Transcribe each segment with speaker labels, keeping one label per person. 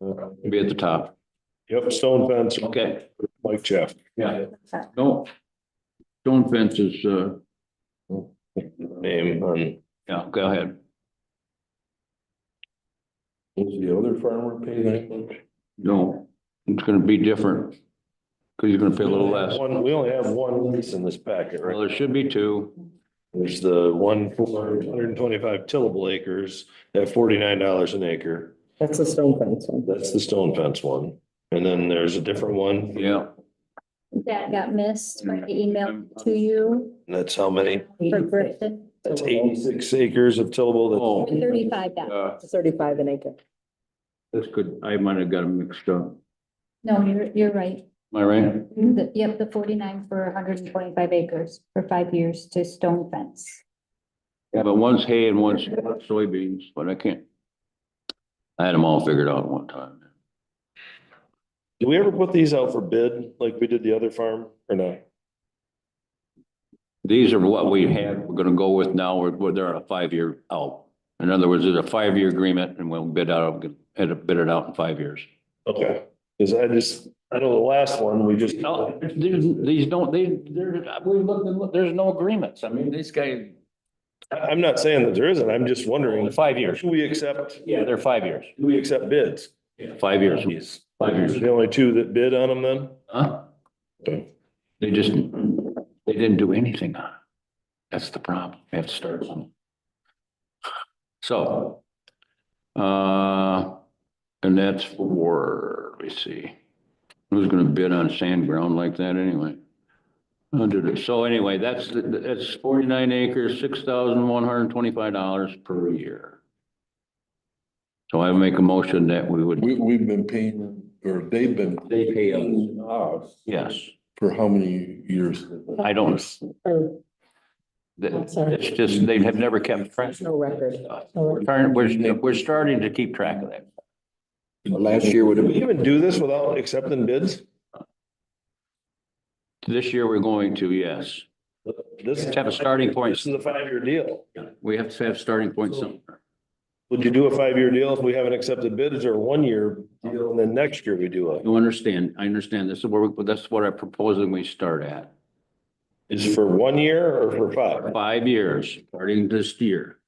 Speaker 1: It'll Be at the top.
Speaker 2: Yep, stone fence,
Speaker 1: Okay,
Speaker 2: Mike Jeff.
Speaker 1: yeah. Don't. Stone fence is, uh,
Speaker 3: Name on,
Speaker 1: yeah, go ahead.
Speaker 3: was the other farmer pay that much?
Speaker 1: No, it's gonna be different. Cause you're gonna pay a little less.
Speaker 3: One, we only have one lease in this packet,
Speaker 1: Well,
Speaker 3: right?
Speaker 1: there should be two.
Speaker 3: There's the one for
Speaker 2: Hundred and twenty-five tillable acres at forty-nine dollars an acre.
Speaker 4: That's a stone fence one.
Speaker 2: That's the stone fence one. And then there's a different one.
Speaker 1: Yeah,
Speaker 5: That got missed by the email to you
Speaker 3: and that's how many?
Speaker 5: for Griffin,
Speaker 2: That's eighty-six acres of tillable.
Speaker 1: oh,
Speaker 5: thirty-five dollars.
Speaker 1: uh,
Speaker 4: Thirty-five an acre.
Speaker 1: this could, I might have got them mixed up. Am
Speaker 5: No, you're, you're right.
Speaker 1: I right?
Speaker 5: The- Yep, the forty-nine for hundred and twenty-five acres for five years to stone fence.
Speaker 1: Yeah, but one's hay and one's soybeans, but I can't. I had them all figured out at one time.
Speaker 2: Do we ever put these out for bid like we did the other farm or not?
Speaker 1: These are what we have, we're gonna go with now, we're, we're- they're on a five-year out. In other words, it's a five-year agreement and we'll bid out, get it bid it out in five years. Oh.
Speaker 2: Okay, cause I just, I know the last one, we just.
Speaker 1: No, these, these don't, they, there's, we looked and looked, there's no agreements. I mean, this guy,
Speaker 2: I- I'm not saying that there isn't, I'm just wondering,
Speaker 1: five years.
Speaker 2: should we accept,
Speaker 1: Yeah, they're five years.
Speaker 2: do we accept bids?
Speaker 1: Five years. Five
Speaker 2: There's
Speaker 1: years.
Speaker 2: the only two that bid on them then?
Speaker 1: Huh?
Speaker 2: Okay.
Speaker 1: They just, they didn't do anything on it. That's the problem. They have to start something. So, uh, and that's for, let me see, who's gonna bid on sand ground like that anyway? Uh, did it- So anyway, that's, that's forty-nine acres, six thousand one hundred and twenty-five dollars per year. So I make a motion that we would,
Speaker 6: We, we've been paying, them, or they've been.
Speaker 1: They pay us.
Speaker 6: paying us
Speaker 1: yes,
Speaker 6: For how many years?
Speaker 1: I don't,
Speaker 4: Or
Speaker 1: that-
Speaker 4: Sorry.
Speaker 1: it's just, they have never kept track.
Speaker 4: there's no record.
Speaker 1: We're trying, we're, we're starting to keep track of that.
Speaker 6: Last year would
Speaker 2: Do we even do this without accepting bids?
Speaker 1: This year, we're going to, yes.
Speaker 2: This is,
Speaker 1: Let's have a starting point.
Speaker 2: this is a five-year deal.
Speaker 1: We have to have starting points somewhere.
Speaker 2: Would you do a five-year deal if we haven't accepted bids or one-year deal and then next year we do it?
Speaker 1: You understand, I understand. This is where, we- that's what I propose and we start at.
Speaker 2: Is for one year or for five?
Speaker 1: Five years, starting this year.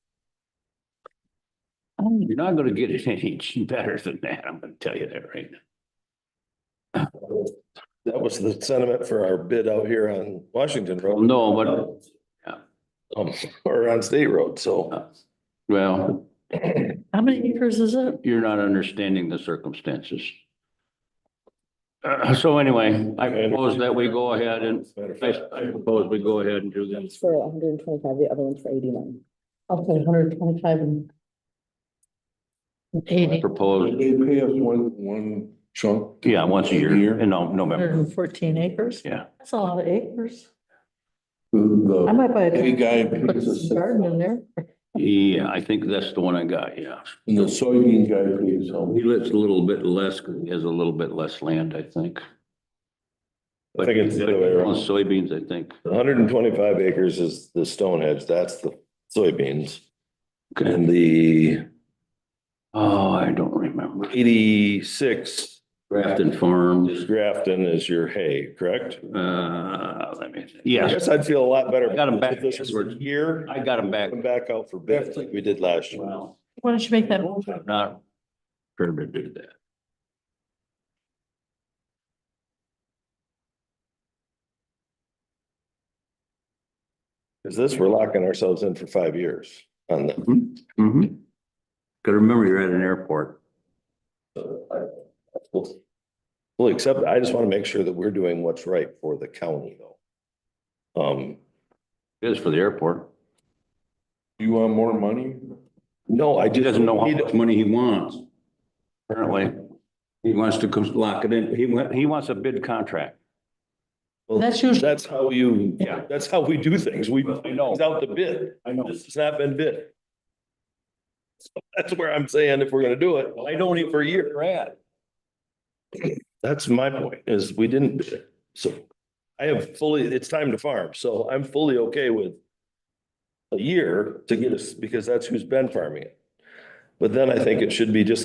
Speaker 4: Um,
Speaker 1: You're not gonna get it any better than that. I'm gonna tell you that right now.
Speaker 2: That was the sentiment for our bid out here on Washington
Speaker 1: Well,
Speaker 2: Road
Speaker 1: No, but
Speaker 2: um, or on State Road, so.
Speaker 1: Well,
Speaker 4: How many acres is it?
Speaker 1: you're not understanding the circumstances. Uh, so anyway, I propose that we go ahead and,
Speaker 2: Matter of
Speaker 1: I,
Speaker 2: fact,
Speaker 1: I propose we go ahead and do this.
Speaker 4: One's for hundred and twenty-five, the other one's for eighty-nine. Okay, hundred and twenty-five and.
Speaker 1: I propose,
Speaker 6: They pay us one, one chunk.
Speaker 1: yeah, once a year,
Speaker 6: Year.
Speaker 1: in Nov- November.
Speaker 4: and fourteen acres?
Speaker 1: Yeah.
Speaker 4: That's a lot of acres. I
Speaker 6: The
Speaker 4: might buy
Speaker 6: hay
Speaker 4: a
Speaker 6: guy
Speaker 4: put
Speaker 6: pays us,
Speaker 4: some garden in there.
Speaker 1: Yeah, I think that's the one I got, yeah.
Speaker 6: and the soybean guy pays how
Speaker 1: He
Speaker 6: much?
Speaker 1: lives a little bit less, 'cause he has a little bit less land, I think.
Speaker 2: I think it's the other way
Speaker 1: On
Speaker 2: around.
Speaker 1: soybeans, I think.
Speaker 2: hundred and twenty-five acres is the Stonehenge, that's the soybeans.
Speaker 1: Okay.
Speaker 2: And the
Speaker 1: Oh, I don't remember.
Speaker 2: eighty-six
Speaker 1: Grafton Farms,
Speaker 2: is Grafton is your hay, correct?
Speaker 1: uh, let me,
Speaker 2: I
Speaker 1: yes,
Speaker 2: guess I'd feel a lot better.
Speaker 1: I got 'em back.
Speaker 2: If this was a year.
Speaker 1: I got 'em back.
Speaker 2: Come back out for bids like we did last year.
Speaker 1: Wow.
Speaker 4: Why don't you make that motion?
Speaker 1: I'm not prepared to do that.
Speaker 2: Cause this, we're locking ourselves in for five years on that.
Speaker 1: Mm-hmm. Gotta remember you're at an airport.
Speaker 2: We'll we'll accept, I just want to make sure that we're doing what's right for the county though. Um,
Speaker 1: It is for the airport.
Speaker 6: You want more money?
Speaker 2: no, I
Speaker 1: He
Speaker 2: just.
Speaker 1: doesn't know how
Speaker 2: He-
Speaker 1: much money he wants. Apparently, he wants to cons- lock it in. He went, he wants a bid contract.
Speaker 2: well,
Speaker 4: That's usually-
Speaker 2: That's how you,
Speaker 1: Yeah.
Speaker 2: that's how we do things. We
Speaker 1: I know.
Speaker 2: it's out the bid.
Speaker 1: I know.
Speaker 2: This has not been bid. So That's where I'm saying if we're gonna do it, I don't even for a year.
Speaker 1: Brad.
Speaker 2: That's my point is we didn't bid it. So I have fully, it's time to farm. So I'm fully okay with a year to get us, because that's who's been farming it. But then I think it should be just like